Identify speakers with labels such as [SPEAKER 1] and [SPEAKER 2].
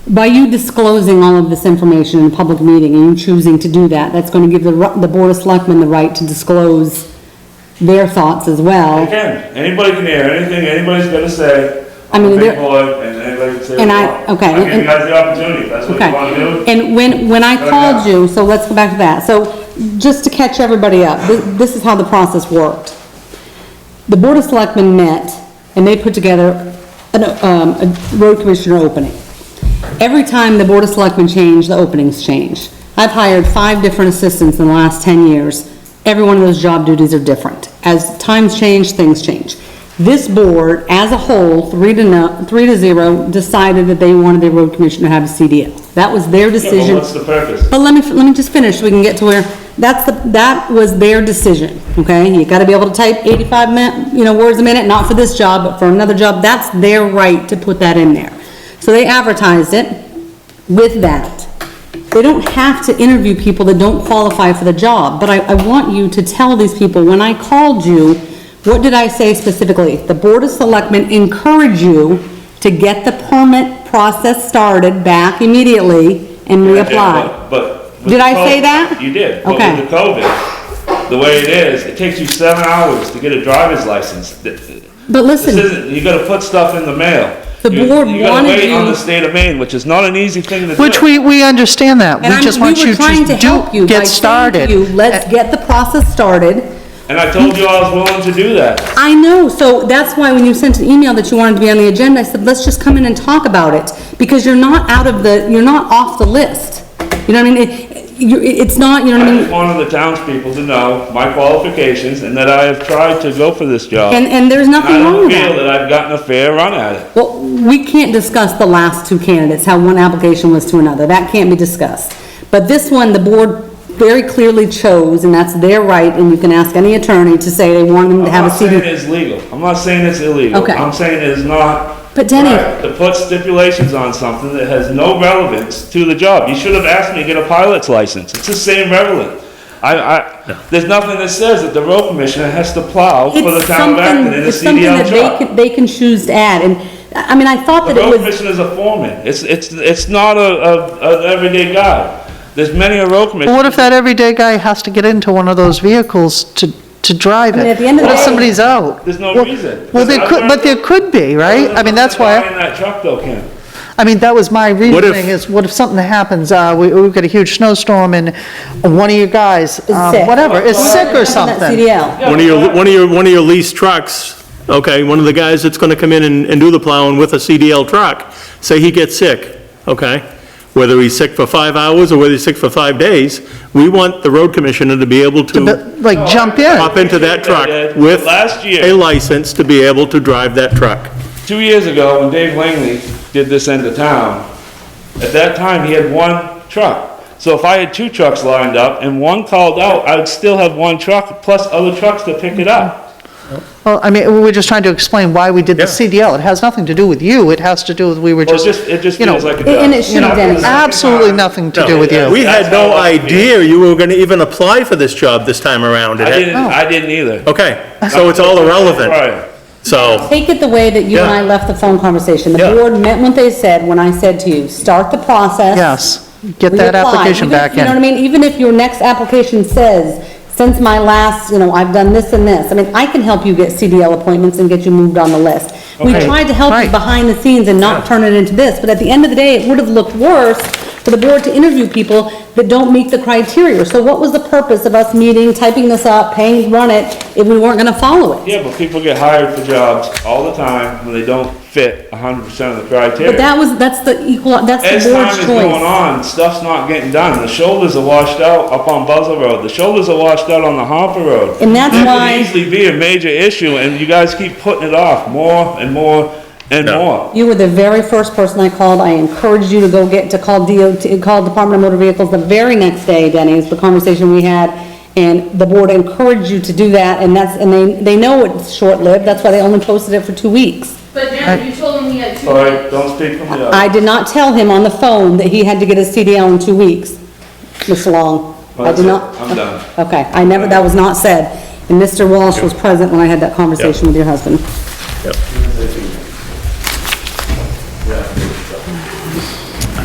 [SPEAKER 1] By you disclosing all of this information in a public meeting and you choosing to do that, that's gonna give the, ri- the Board of Selectmen the right to disclose their thoughts as
[SPEAKER 2] They
[SPEAKER 1] well.
[SPEAKER 2] can, anybody can hear anything anybody's gonna say.
[SPEAKER 1] I mean,
[SPEAKER 2] on the
[SPEAKER 1] there-
[SPEAKER 2] big board, And anybody can say. what
[SPEAKER 1] And
[SPEAKER 2] they
[SPEAKER 1] I-
[SPEAKER 2] want.
[SPEAKER 1] okay,
[SPEAKER 2] I mean,
[SPEAKER 1] and-
[SPEAKER 2] you guys the opportunity, that's what you wanna do.
[SPEAKER 1] Okay, and when, when I
[SPEAKER 2] Right
[SPEAKER 1] called
[SPEAKER 2] now.
[SPEAKER 1] you, so let's go back to that, so, just to catch everybody up, thi- this is how the process worked. The Board of Selectmen met, and they put together an, um, a road commissioner opening. Every time the Board of Selectmen changed, the openings changed. I've hired five different assistants in the last ten years, every one of those job duties are different. As times change, things change. This board, as a whole, three to no, three to zero, decided that they wanted their road commissioner to have a CDL. That was their
[SPEAKER 2] Yeah,
[SPEAKER 1] decision.
[SPEAKER 2] But what's the purpose?
[SPEAKER 1] But let me, let me just finish, so we can get to where, that's the, that was their decision, okay? You gotta be able to type eighty-five min, you know, words a minute, not for this job, but for another job, that's their right to put that in there. So they advertised it with that. They don't have to interview people that don't qualify for the job, but I, I want you to tell these people, when I called you, what did I say specifically? The Board of Selectmen encourage you to get the permit process started back immediately and
[SPEAKER 2] Yeah,
[SPEAKER 1] reapply.
[SPEAKER 2] but- But. with
[SPEAKER 1] Did I
[SPEAKER 2] the
[SPEAKER 1] say
[SPEAKER 2] COVID-
[SPEAKER 1] that?
[SPEAKER 2] You did. But
[SPEAKER 1] Okay.
[SPEAKER 2] with the COVID, the way it is, it takes you seven hours to get a driver's license. Th- th-
[SPEAKER 1] But
[SPEAKER 2] This
[SPEAKER 1] listen,
[SPEAKER 2] isn't, you gotta put stuff in the mail.
[SPEAKER 1] The
[SPEAKER 2] You-
[SPEAKER 1] board wanted
[SPEAKER 2] You gotta wait on
[SPEAKER 1] you-
[SPEAKER 2] the state of Maine, which is not an easy thing to do.
[SPEAKER 3] Which we, we understand that.
[SPEAKER 1] and
[SPEAKER 3] We just
[SPEAKER 1] I'm,
[SPEAKER 3] want
[SPEAKER 1] we were
[SPEAKER 3] you
[SPEAKER 1] trying to
[SPEAKER 3] to
[SPEAKER 1] help you by
[SPEAKER 3] do, get
[SPEAKER 1] saying to
[SPEAKER 3] started.
[SPEAKER 1] you, let's get the process started.
[SPEAKER 2] And I told you I was willing to do that.
[SPEAKER 1] I know, so that's why when you sent an email that you wanted to be on the agenda, I said, let's just come in and talk about it, because you're not out of the, you're not off the list. You know what I mean? It, you, it's not, you know what
[SPEAKER 2] I
[SPEAKER 1] I
[SPEAKER 2] just
[SPEAKER 1] mean?
[SPEAKER 2] wanted the townspeople to know my qualifications and that I have tried to go for this job.
[SPEAKER 1] And, and there's
[SPEAKER 2] I
[SPEAKER 1] nothing wrong
[SPEAKER 2] don't
[SPEAKER 1] with
[SPEAKER 2] feel
[SPEAKER 1] that.
[SPEAKER 2] that I've gotten a fair run at it.
[SPEAKER 1] Well, we can't discuss the last two candidates, how one application was to another, that can't be discussed. But this one, the board very clearly chose, and that's their right, and you can ask any attorney to say they want them to
[SPEAKER 2] I'm
[SPEAKER 1] have a
[SPEAKER 2] not saying
[SPEAKER 1] seat.
[SPEAKER 2] it's legal. I'm not saying it's illegal.
[SPEAKER 1] Okay.
[SPEAKER 2] I'm saying it is not.
[SPEAKER 1] But Denny-
[SPEAKER 2] right To put stipulations on something that has no relevance to the job. You should have asked me to get a pilot's license. It's the same relevant. I, I, there's nothing that says that the road commissioner has to plow for the
[SPEAKER 1] It's
[SPEAKER 2] town of Acton
[SPEAKER 1] something,
[SPEAKER 2] in a
[SPEAKER 1] it's something
[SPEAKER 2] CDL
[SPEAKER 1] that
[SPEAKER 2] job.
[SPEAKER 1] they can, they can choose to add, and, I I mean, I thought that
[SPEAKER 2] The
[SPEAKER 1] it
[SPEAKER 2] road
[SPEAKER 1] was.
[SPEAKER 2] commissioner is a foreman. It's, it's, it's not a, a, an everyday guy. There's many a road
[SPEAKER 3] But
[SPEAKER 2] commissioner.
[SPEAKER 3] What if that everyday guy has to get into one of those vehicles to, to drive
[SPEAKER 1] I mean, at
[SPEAKER 3] it?
[SPEAKER 1] the end of
[SPEAKER 3] What
[SPEAKER 1] the
[SPEAKER 3] if
[SPEAKER 1] day-
[SPEAKER 3] somebody's out?
[SPEAKER 2] There's no
[SPEAKER 3] Well-
[SPEAKER 2] reason.
[SPEAKER 3] Well, there could, but there could be, right? I mean, that's why,
[SPEAKER 2] In that truck though, Ken.
[SPEAKER 3] I mean, that was my
[SPEAKER 4] What if-
[SPEAKER 3] reasoning, is what if something happens, uh, we, we've got a huge snowstorm and one of your guys, um,
[SPEAKER 1] sick.
[SPEAKER 3] whatever, is sick or
[SPEAKER 1] That
[SPEAKER 3] something.
[SPEAKER 1] CDL.
[SPEAKER 4] One of your, one of your, one of your leased trucks, okay, one of the guys that's gonna come in and, and do the plowing with a CDL truck, say he gets sick, okay? Whether he's sick for five hours or whether he's sick for five days, we want the road commissioner to be able to
[SPEAKER 3] But, Like, jump in.
[SPEAKER 4] hop into that truck with
[SPEAKER 2] Last year.
[SPEAKER 4] a license to be able to drive that truck.
[SPEAKER 2] Two years ago, when Dave Langley did this end of town, at that time, he had one truck. So if I had two trucks lined up and one called out, I would still have one truck plus other trucks to pick it up.
[SPEAKER 3] Well, I mean, we were just trying to explain why we did the
[SPEAKER 4] Yeah.
[SPEAKER 3] CDL. It has nothing to do with you, it has to do with, we were
[SPEAKER 2] Well, it
[SPEAKER 3] just,
[SPEAKER 2] just, it just
[SPEAKER 3] Mm-hmm. you know,
[SPEAKER 2] feels like a job.
[SPEAKER 1] and it should have been.
[SPEAKER 3] absolutely nothing to do with you.
[SPEAKER 4] We had no idea you were gonna even apply for this job this time around. It
[SPEAKER 2] I
[SPEAKER 4] had-
[SPEAKER 2] didn't, I didn't either.
[SPEAKER 4] Okay, so it's all irrelevant,
[SPEAKER 2] Right.
[SPEAKER 4] so.
[SPEAKER 1] Take it the way that you and I
[SPEAKER 4] Yeah.
[SPEAKER 1] left the phone conversation. The
[SPEAKER 4] Yeah.
[SPEAKER 1] board meant what they said when I said to you, start the process.
[SPEAKER 3] yes, get that
[SPEAKER 1] reapply.
[SPEAKER 3] application
[SPEAKER 1] Even-
[SPEAKER 3] back in.
[SPEAKER 1] You know what I mean? Even if your next application says, since my last, you know, I've done this and this, I mean, I can help you get CDL appointments and get you moved on the list. We
[SPEAKER 3] Okay.
[SPEAKER 1] tried to help you
[SPEAKER 3] Right.
[SPEAKER 1] behind the scenes and not turn it into this, but at the end of the day, it would have looked worse for the board to interview people that don't meet the criteria. So what was the purpose of us meeting, typing this up, paying, to run it, if we weren't gonna follow it?
[SPEAKER 2] Yeah, but people get hired for jobs all the time when they don't fit hundred percent of the criteria.
[SPEAKER 1] But that was, that's the equal, that's
[SPEAKER 2] As
[SPEAKER 1] the board's
[SPEAKER 2] time is going
[SPEAKER 1] choice.
[SPEAKER 2] on, stuff's not getting done. The shoulders are washed out up on Buzzell Road. The shoulders are washed out on the Harper Road.
[SPEAKER 1] And that's
[SPEAKER 2] That
[SPEAKER 1] why-
[SPEAKER 2] could easily be a major issue, and you guys keep putting it off more and more and
[SPEAKER 4] No.
[SPEAKER 2] more.
[SPEAKER 1] You were the very first person I called. I encouraged you to go get, to call DOT, call Department of Motor Vehicles the very next day, Denny, is the conversation we had. And the board encouraged you to do that, and that's, and they, they know it's short-lived, that's why they only posted it for two weeks.
[SPEAKER 5] But Jen, you told him he had two.
[SPEAKER 2] All right, don't speak from the
[SPEAKER 1] I
[SPEAKER 2] other.
[SPEAKER 1] did not tell him on the phone that he had to get his CDL in two weeks, Mr. Long.
[SPEAKER 2] Well,
[SPEAKER 1] I did
[SPEAKER 2] that's it.
[SPEAKER 1] not.
[SPEAKER 2] I'm done.
[SPEAKER 1] Okay, I never, that was not said. And Mr. Walsh was present when I had that conversation with your husband.
[SPEAKER 4] Yep.